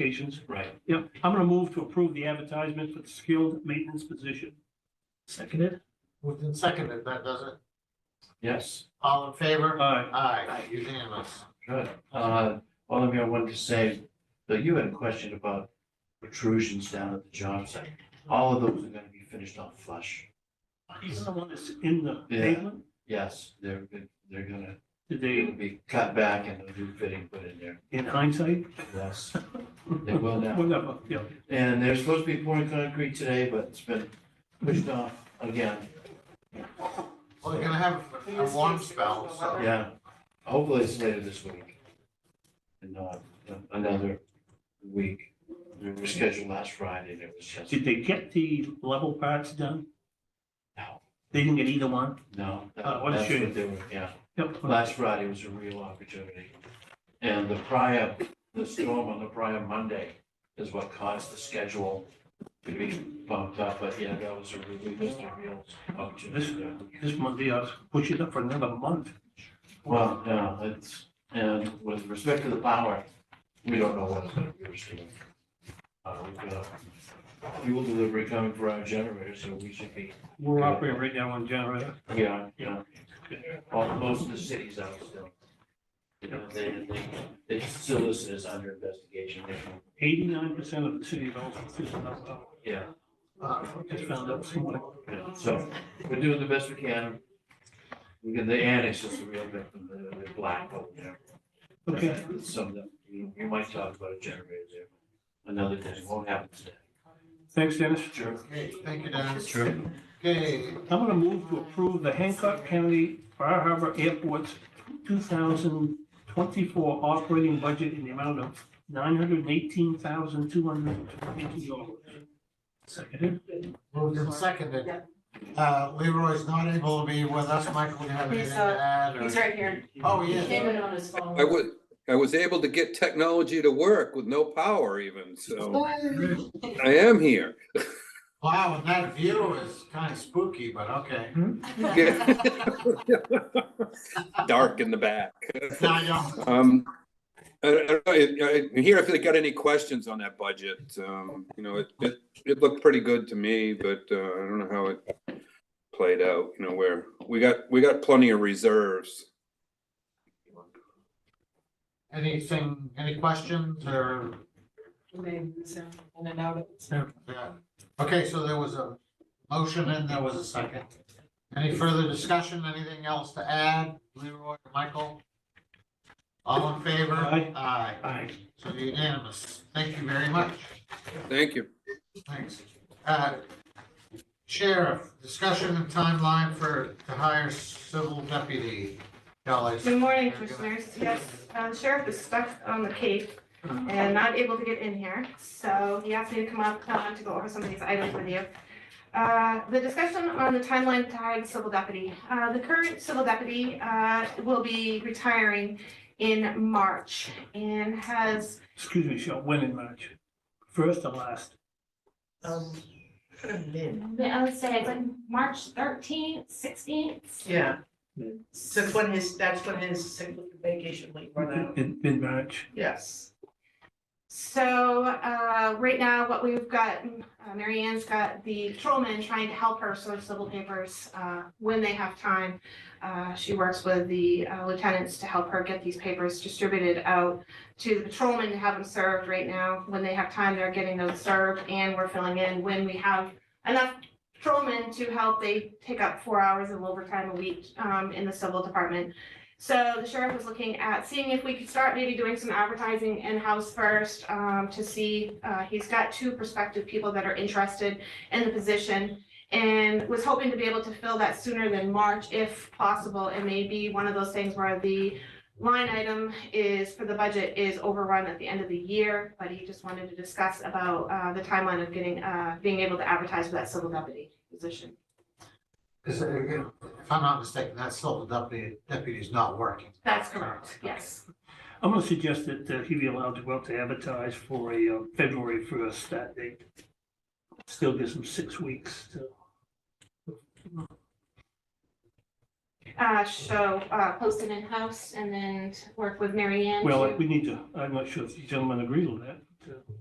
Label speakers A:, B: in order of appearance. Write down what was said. A: Applications.
B: Right.
A: Yep, I'm gonna move to approve the advertisement for the skilled maintenance position.
C: Seconded?
D: Moved and seconded, that does it.
B: Yes,
D: All in favor?
A: Aye.
D: Aye, unanimous.
B: good. Uh, Oliver, I wanted to say that you had a question about protrusions down at the job site. All of those are gonna be finished off flush.
A: Is the one that's in the
B: Yeah.
A: pavement?
B: Yes, they're, they're gonna,
A: Did they,
B: it'll be cut back and a new fitting put in there.
A: in hindsight?
B: Yes, they will now.
A: Whatever, yeah.
B: And they're supposed to be pouring concrete today, but it's been pushed off again.
D: Well, We're gonna have a warm spell, so.
B: Yeah, hopefully it's later this week. And not another week. We were scheduled last Friday and it was just,
A: Did they get the level parts done?
B: no,
A: They didn't get either one?
B: no.
A: Uh, what a
B: that's
A: shame.
B: they were- Yeah,
A: Yep.
B: last Friday was a real opportunity. And the prior, the storm on the prior Monday is what caused the schedule to be bumped up. But yeah, that was a really, just a real opportunity.
A: This uh, Monday, I was pushing up for another month.
B: Well, no, it's, and with respect to the power, we don't know what it's gonna be receiving. Uh, we've got fuel delivery coming for our generator, so we should be,
A: We're operating right now on generator.
B: yeah, you know, all, most of the cities out still. You know, they, they, they still listed as under investigation, They-
A: Eighty-nine percent of the city of Ellsworth is not up.
B: yeah,
D: Uh,
A: Just found out this morning.
B: yeah, so we're doing the best we can. We get the annex is the real victim, the, the black, hole, you know.
A: Okay,
B: Some of them, you, you might talk about a generator there. Another day, won't happen today.
A: thanks, Dennis.
B: Sure.
D: Okay, thank you, Dennis.
B: Sure.
D: Okay,
A: I'm gonna move to approve the Hancock County Bar Harbor Airport's two thousand twenty-four operating budget in the amount of nine hundred and eighteen thousand, two hundred and twenty dollars. Seconded?
D: moved and seconded. Uh, Leroy's not able to be with us. Michael, you have anything
E: He's,
D: to
E: uh,
D: add? or-
E: He's right here.
D: Oh,
E: He
D: yeah.
E: came in on his phone.
F: I was, I was able to get technology to work with no power even, so I am here.
D: Wow, and that view is kind of spooky, but okay.
F: Dark in the back.
D: Now, y'all,
F: Um, I, I don't know, I- I- here if they got any questions on that budget, um, you know, it, it, it looked pretty good to me, but, uh, I don't know how it played out, you know, where, we got, we got plenty of reserves.
D: anything, any questions or?
E: In and out.
D: Yeah. Okay, so there was a motion and there was a second. Any further discussion, anything else to add, Leroy, Michael? All in favor?
A: Aye.
D: Aye,
A: Aye.
D: so unanimous. Thank you very much.
F: Thank you.
D: Thanks. Uh, Sheriff, discussion and timeline for to hire civil deputy. Kelly.
G: Good morning, commissioners. Yes, uh, sheriff is stuck on the Cape and not able to get in here, so he asked me to come up uh, to go over some of these items with you. Uh, The discussion on the timeline tied civil deputy. Uh, The current civil deputy uh, will be retiring in March and has,
A: Excuse me, Sean, when in March? First or last?
G: I would say it's like March 13th, 16th.
H: Yeah. So it's when his, that's when his sick leave vacation leave run out,
A: In, in March?
H: yes.
G: So uh, right now, what we've got, uh, Mary Ann's got the patrolman trying to help her source civil papers uh, when they have time. Uh, She works with the uh, lieutenants to help her get these papers distributed out to the patrolmen to have them served right now. When they have time, they're getting those served and we're filling in. When we have enough patrolmen to help, they take up four hours of overtime a week um, in the civil department. So the sheriff was looking at seeing if we could start maybe doing some advertising in-house first um, to see, uh, he's got two prospective people that are interested in the position and was hoping to be able to fill that sooner than March if possible. It may be one of those things where the line item is, for the budget, is overrun at the end of the year, but he just wanted to discuss about uh, the timeline of getting, uh, being able to advertise for that civil deputy position.
D: Is it- If I'm not mistaken, that civil deputy, deputy's not working.
G: That's correct, yes.
A: I'm gonna suggest that uh, he be allowed to go out to advertise for a uh, February first start date. Still gives him six weeks to.
G: Uh, so, uh, post it in-house and then work with Mary Ann.
A: Well,
G: to-
A: we need to, I'm not sure if the gentleman agreed with that. uh,